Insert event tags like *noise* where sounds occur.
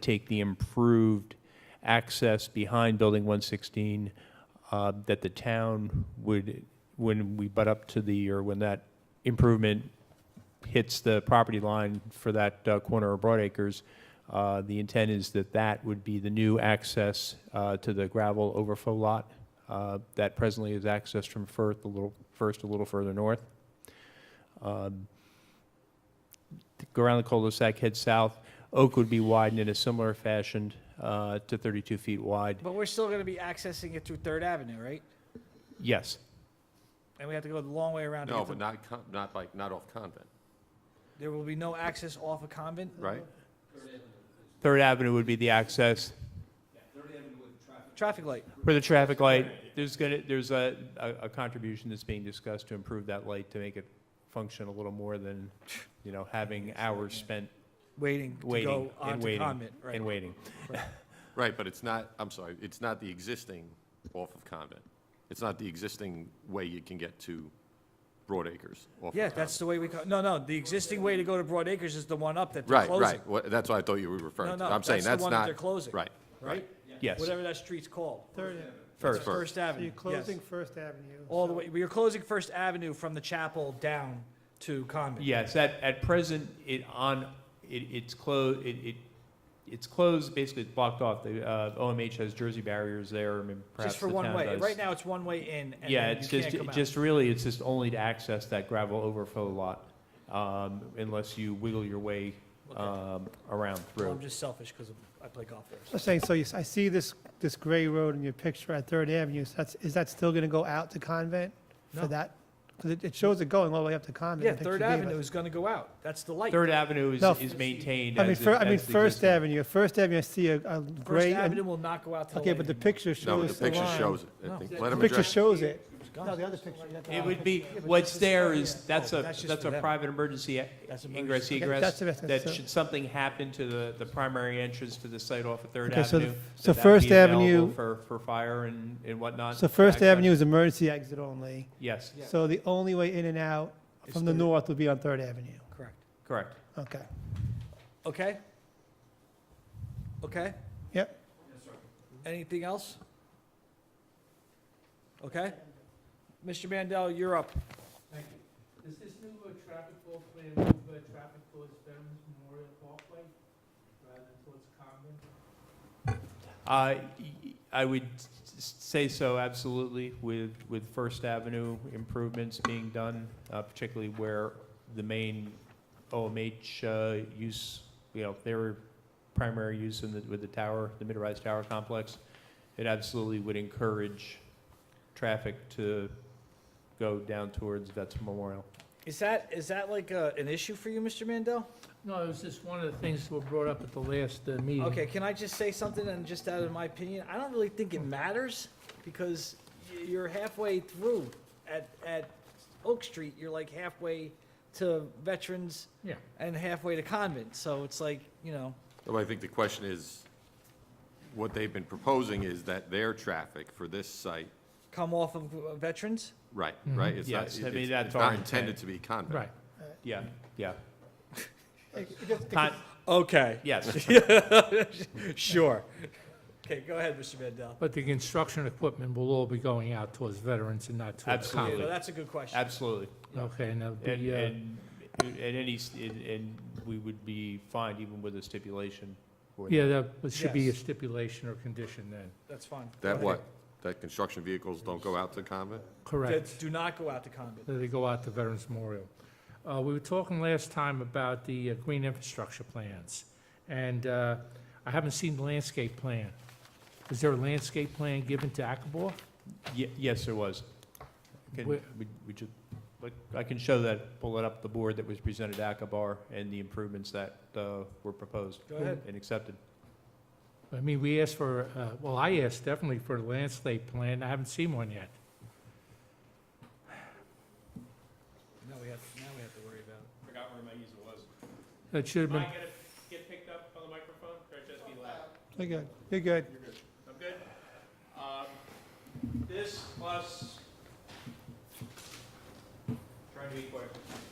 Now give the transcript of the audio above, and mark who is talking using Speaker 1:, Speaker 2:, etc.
Speaker 1: take the improved access behind Building 116 uh, that the town would, when we butt up to the, or when that improvement hits the property line for that uh, corner of Broadacres, uh, the intent is that that would be the new access uh, to the gravel overflow lot uh, that presently is accessed from Firth, a little, first a little further north. Um, Go around the cul-de-sac, head south. Oak would be widened in a similar fashion uh, to 32 feet wide.
Speaker 2: But we're still going to be accessing it through Third Avenue, right?
Speaker 1: Yes,
Speaker 2: And we have to go the long way around. to
Speaker 3: No,
Speaker 2: get
Speaker 3: but
Speaker 2: to-
Speaker 3: not, con- not like, not off Convent,
Speaker 2: There will be no access off of Convent?
Speaker 3: right?
Speaker 1: Third Avenue would be the access.
Speaker 2: Traffic light.
Speaker 1: For the traffic light, there's gonna, there's a, a a contribution that's being discussed to improve that light to make it function a little more than, you know, having hours spent
Speaker 2: Waiting to
Speaker 1: waiting
Speaker 2: go
Speaker 1: and
Speaker 2: onto
Speaker 1: waiting
Speaker 2: Convent,
Speaker 1: and
Speaker 2: right?
Speaker 1: waiting.
Speaker 3: Right, but it's not, I'm sorry, it's not the existing off of Convent. It's not the existing way you can get to Broadacres off of
Speaker 2: Yeah, that's
Speaker 3: Convent.
Speaker 2: the way we, co- no, no, the existing way to go to Broad Acres is the one up that they're
Speaker 3: Right,
Speaker 2: closing.
Speaker 3: right, What- that's what I thought you were referring
Speaker 2: No,
Speaker 3: to.
Speaker 2: no,
Speaker 3: I'm saying
Speaker 2: that's the
Speaker 3: that's
Speaker 2: one that
Speaker 3: not,
Speaker 2: they're closing.
Speaker 3: right, right.
Speaker 2: Right?
Speaker 1: Yes,
Speaker 2: Whatever that street's called.
Speaker 4: Third,
Speaker 1: first,
Speaker 2: First
Speaker 4: so you're
Speaker 2: Avenue, yes.
Speaker 4: closing First Avenue.
Speaker 2: All the
Speaker 4: so-
Speaker 2: way, we are closing First Avenue from the chapel down to Convent.
Speaker 1: yes, at, at present, it on, it, it's closed, it, it, it's closed, basically it's blocked off. The, uh, OMH has jersey barriers there, I mean, perhaps
Speaker 2: Just
Speaker 1: the
Speaker 2: for
Speaker 1: town
Speaker 2: one way.
Speaker 1: does.
Speaker 2: Right now, it's one way in and
Speaker 1: Yeah,
Speaker 2: then
Speaker 1: it's
Speaker 2: you
Speaker 1: just,
Speaker 2: can't come out.
Speaker 1: just really, it's just only to access that gravel overflow lot, um, unless you wiggle your way,
Speaker 2: Okay.
Speaker 1: um, around
Speaker 2: Well,
Speaker 1: through.
Speaker 2: I'm just selfish because I play golf there.
Speaker 4: I'm saying, so you s- I see this, this gray road in your picture at Third Avenue, so that's, is that still gonna go out to Convent
Speaker 2: No.
Speaker 4: for that? Because it, it shows it going all the way up to Convent.
Speaker 2: Yeah,
Speaker 4: the picture
Speaker 2: Third
Speaker 4: you gave
Speaker 2: Avenue
Speaker 4: us.
Speaker 2: is going to go out. That's the light.
Speaker 1: Third Avenue is,
Speaker 4: No.
Speaker 1: is maintained
Speaker 4: I mean,
Speaker 1: as. it-
Speaker 4: fir, I
Speaker 1: as
Speaker 4: mean,
Speaker 1: the
Speaker 4: First
Speaker 1: existing-
Speaker 4: Avenue, First Avenue, I see a, a
Speaker 2: First
Speaker 4: gray,
Speaker 2: Avenue
Speaker 4: and-
Speaker 2: will not go out till.
Speaker 4: okay, but the picture shows the
Speaker 3: No, but the picture
Speaker 4: line.
Speaker 3: shows it.
Speaker 2: No.
Speaker 3: I think.
Speaker 4: The
Speaker 3: Let him
Speaker 4: picture
Speaker 3: address,
Speaker 4: shows it. No,
Speaker 2: Gone.
Speaker 4: the other picture. you got the
Speaker 1: It
Speaker 4: wrong
Speaker 1: would
Speaker 4: picture.
Speaker 1: be, what's there is,
Speaker 2: yeah.
Speaker 1: that's
Speaker 2: Oh,
Speaker 1: a,
Speaker 2: that's just
Speaker 1: that's
Speaker 2: for
Speaker 1: a
Speaker 2: them.
Speaker 1: private emergency e-
Speaker 2: That's
Speaker 1: ingress
Speaker 2: emergency.
Speaker 4: Okay,
Speaker 1: egress.
Speaker 4: that's the best-
Speaker 1: That
Speaker 4: so-
Speaker 1: should something happen to the, the primary entrance to the site off of Third
Speaker 4: Okay, so the-
Speaker 1: Avenue.
Speaker 4: so
Speaker 1: that that would
Speaker 4: First
Speaker 1: be available
Speaker 4: Avenue-
Speaker 1: For, for fire and, and whatnot.
Speaker 4: So First
Speaker 1: access.
Speaker 4: Avenue is emergency exit only,
Speaker 1: Yes,
Speaker 2: Yeah.
Speaker 4: so the only way in and out
Speaker 2: Is
Speaker 4: from the
Speaker 2: Third.
Speaker 4: north would be on Third Avenue.
Speaker 2: Correct.
Speaker 1: correct.
Speaker 4: Okay,
Speaker 2: Okay? Okay?
Speaker 4: Yep.
Speaker 2: Anything else? Okay? Mr. Mandel, you're up.
Speaker 5: Thank you. Does this new uh, traffic flow plan move uh, traffic towards Veterans Memorial Parkway rather than towards Convent?
Speaker 1: Uh, y- I would s- say so, absolutely, with, with First Avenue improvements being done, uh, particularly where the main OMH uh, use, you know, their primary use in the, with the tower, the mid-rise tower complex, it absolutely would encourage traffic to go down towards Vets Memorial.
Speaker 2: Is that, is that like uh, an issue for you, Mr. Mandel?
Speaker 5: No, it was just one of the things that were brought up at the last uh, meeting.
Speaker 2: Okay, can I just say something and just out of my opinion? I don't really think it matters because y- you're halfway through at, at Oak Street, you're like halfway to Veterans
Speaker 5: Yeah.
Speaker 2: and halfway to Convent, so it's like, you know,
Speaker 3: Well, I think the question is, what they've been proposing is that their traffic for this site,
Speaker 2: come off of uh, Veterans?
Speaker 3: right, right? It's not-
Speaker 1: Mm-hmm. Yes, I mean,
Speaker 3: it's-
Speaker 1: that's
Speaker 3: It's
Speaker 1: our
Speaker 3: not
Speaker 1: intent.
Speaker 3: intended to be Convent.
Speaker 5: Right.
Speaker 1: Yeah, yeah.
Speaker 4: It- it just- it
Speaker 1: Con-
Speaker 2: Okay. *laughs*
Speaker 5: *laughs*
Speaker 1: Yes,
Speaker 2: Sure. Okay, go ahead, Mr. Mandel.
Speaker 5: But the construction equipment will all be going out towards Veterans and not towards
Speaker 1: Absolutely.
Speaker 2: Yeah,
Speaker 5: Convent.
Speaker 2: no, that's a good question.
Speaker 1: absolutely.
Speaker 5: Okay, and that'll
Speaker 1: And,
Speaker 5: be, uh,
Speaker 1: and, and any, s- and, and we would be fine even with a stipulation for that.
Speaker 5: yeah, that should be a
Speaker 2: Yes.
Speaker 5: stipulation or condition then.
Speaker 2: That's fine.
Speaker 3: That what? That construction vehicles don't go out to Convent?
Speaker 2: That
Speaker 5: Correct.
Speaker 2: do not go out to Convent.
Speaker 5: that they go out to Veterans Memorial. Uh, We were talking last time about the uh, green infrastructure plans, and uh, I haven't seen the landscape plan. Is there a landscape plan given to Akabor?
Speaker 1: Ye- Yes, there was. Can,
Speaker 5: Where-
Speaker 1: would- would you, like, I can show that, pull it up, the board that was presented at Akabar and the improvements that uh, were proposed
Speaker 2: Go ahead.
Speaker 1: and accepted.
Speaker 5: I mean, we asked for, uh, well, I asked definitely for a landscape plan, I haven't seen one yet.
Speaker 2: Now we have, now we have to worry about it.
Speaker 1: Forgot where my user was.
Speaker 5: That should have been,
Speaker 1: get picked up on the microphone, or just be loud?
Speaker 4: You're good, you're good.
Speaker 1: I'm good. Um, This plus, trying to be quick, Oh,